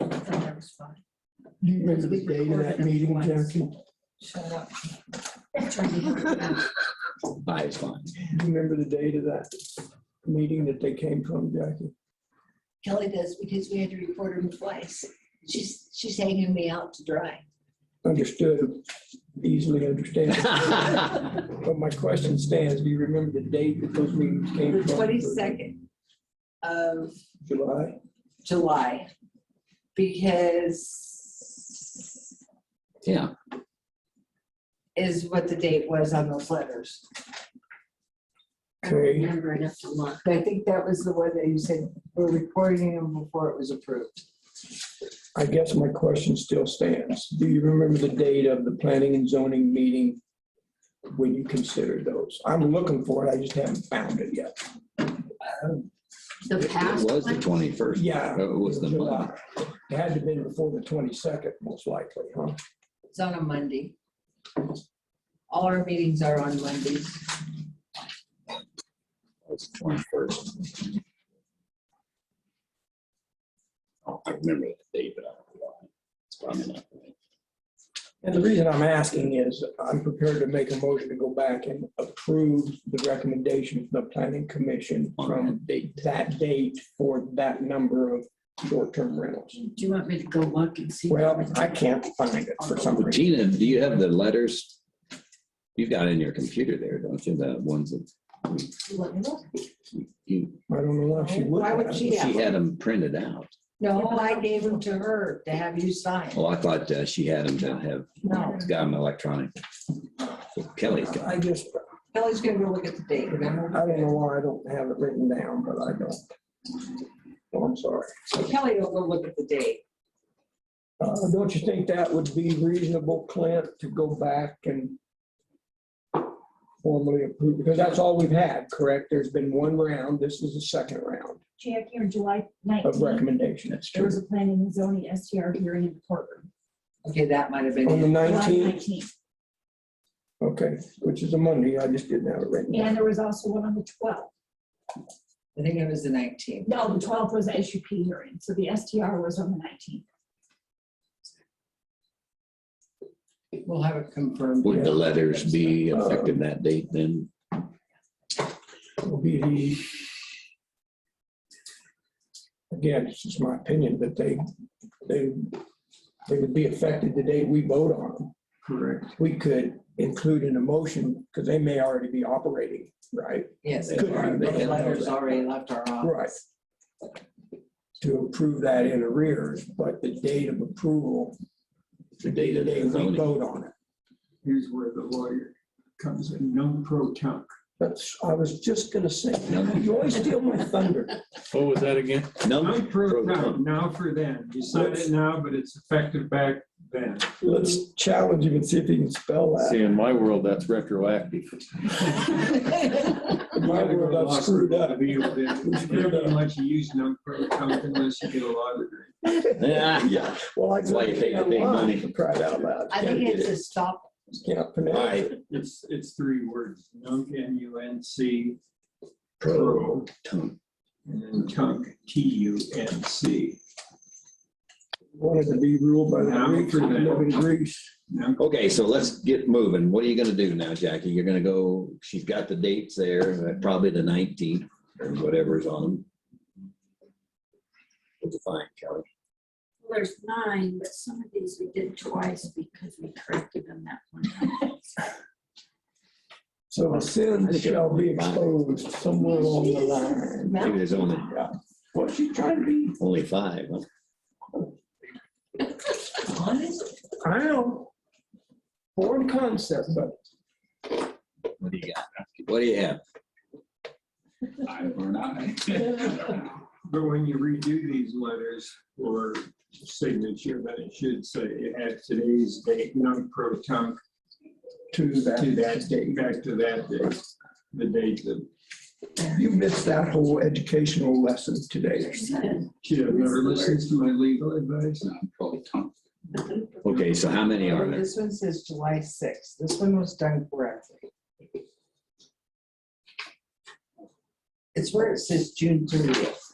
is fine. Do you remember the date of that meeting, Jackie? Shut up. Attorney. Five is fine. Do you remember the date of that meeting that they came from, Jackie? Kelly does because we had to report him twice. She's, she's hanging me out to dry. Understood, easily understandable. That But my question stands, do you remember the date that those meetings The came from? twenty-second of July? July. Because Yeah, is what the date was on those letters. I don't Okay. remember enough to look. I think that was the one that you said, we're recording them before it was approved. I guess my question still stands. Do you remember the date of the planning and zoning meeting when you considered those? I'm looking for it, I just haven't found it yet. The it past was the one, twenty-first. Yeah. It was the month. July. It had to have been before the twenty-second, most likely, huh? It's on a Monday. All our meetings are on Mondays. It was the twenty-first. I remember the date, but I don't know why. It's probably not. And the reason I'm asking is I'm prepared to make a motion to go back and approve the recommendation of the planning commission On from that date. that date for that number of short-term rentals. do you want me to go look and see? Well, I can't find it for some reason. Gina, do you have the letters? You've got it in your computer there, don't you? The ones that Let me look. you, I don't know why she would. Why would have. she she have? had them printed out. No, I gave them to her to have you sign. Well, I thought uh, she had them to have, No, got them electronic. Kelly's got. I just, Kelly's gonna go look at the date. I don't know why I don't have it written down, but I don't. Oh, I'm sorry. Kelly will go look at the date. Uh, Don't you think that would be reasonable, Clint, to go back and formally approve? Because that's all we've had, correct? There's been one round. This is the second round Jack, here, July of nineteenth, recommendation. That's there true. was a planning and zoning STR hearing in the courtroom. Okay, that might have On the been. it. July nineteenth, 19th. okay, which is a Monday. I just didn't have it written down. And there was also one on the twelfth. I think it was the nineteenth. No, the twelfth was the SUP hearing, so the STR was on the nineteenth. We'll have it confirmed. Would the letters be effective that date then? will be the. Again, it's just my opinion, that they, they, they would be affected the day we vote on them. Correct. We could include in a motion, because they may already be operating, right, Yes, Good. our- They those had- letters already left our Right. office. to approve that in arrears, but the date of approval, The date the of day the we zoning? vote on it. here's where the lawyer comes in, non pro tunc. That's, I was just gonna say, No. you always steal my thunder. What was that again? No, Non pro tunc, now for then. You sign it now, but it's effective back then. Let's challenge him and see if he can spell that. See, in my world, that's retroactive. In my world, I've screwed up. It's never much use non pro tunc unless you get a law degree. Yeah. Yeah, well, I. That's why you take the big money. Cried out loud. I think it's a stop. Can't All pronounce right. it. It's, it's three words, nunc, N U N C, Pro tunc. and then tunc, T U N C. Wanted to be ruled by the Now Greeks, for we that. live in Greece. Nunc Okay, so let's get moving. What are you gonna do now, Jackie? You're gonna go, she's got the dates there, uh, probably the nineteenth or whatever's on them. What'd you find, Kelly? There's nine, but some of these we did twice because we corrected them that one time. So the sin shall be exposed somewhere along the line. Maybe there's only, What's she trying to be? only five. huh? I know. Foreign concept, but What do you got? What do you have? But when you redo these letters for signature, then it should say it has today's date, non pro tunc, to to that, that date, back to that date, the date that you missed that whole educational lesson today. she had never listens to my legal advice. Okay, so how many are there? This one says July sixth. This one was done correctly. It's where it says June thirtieth.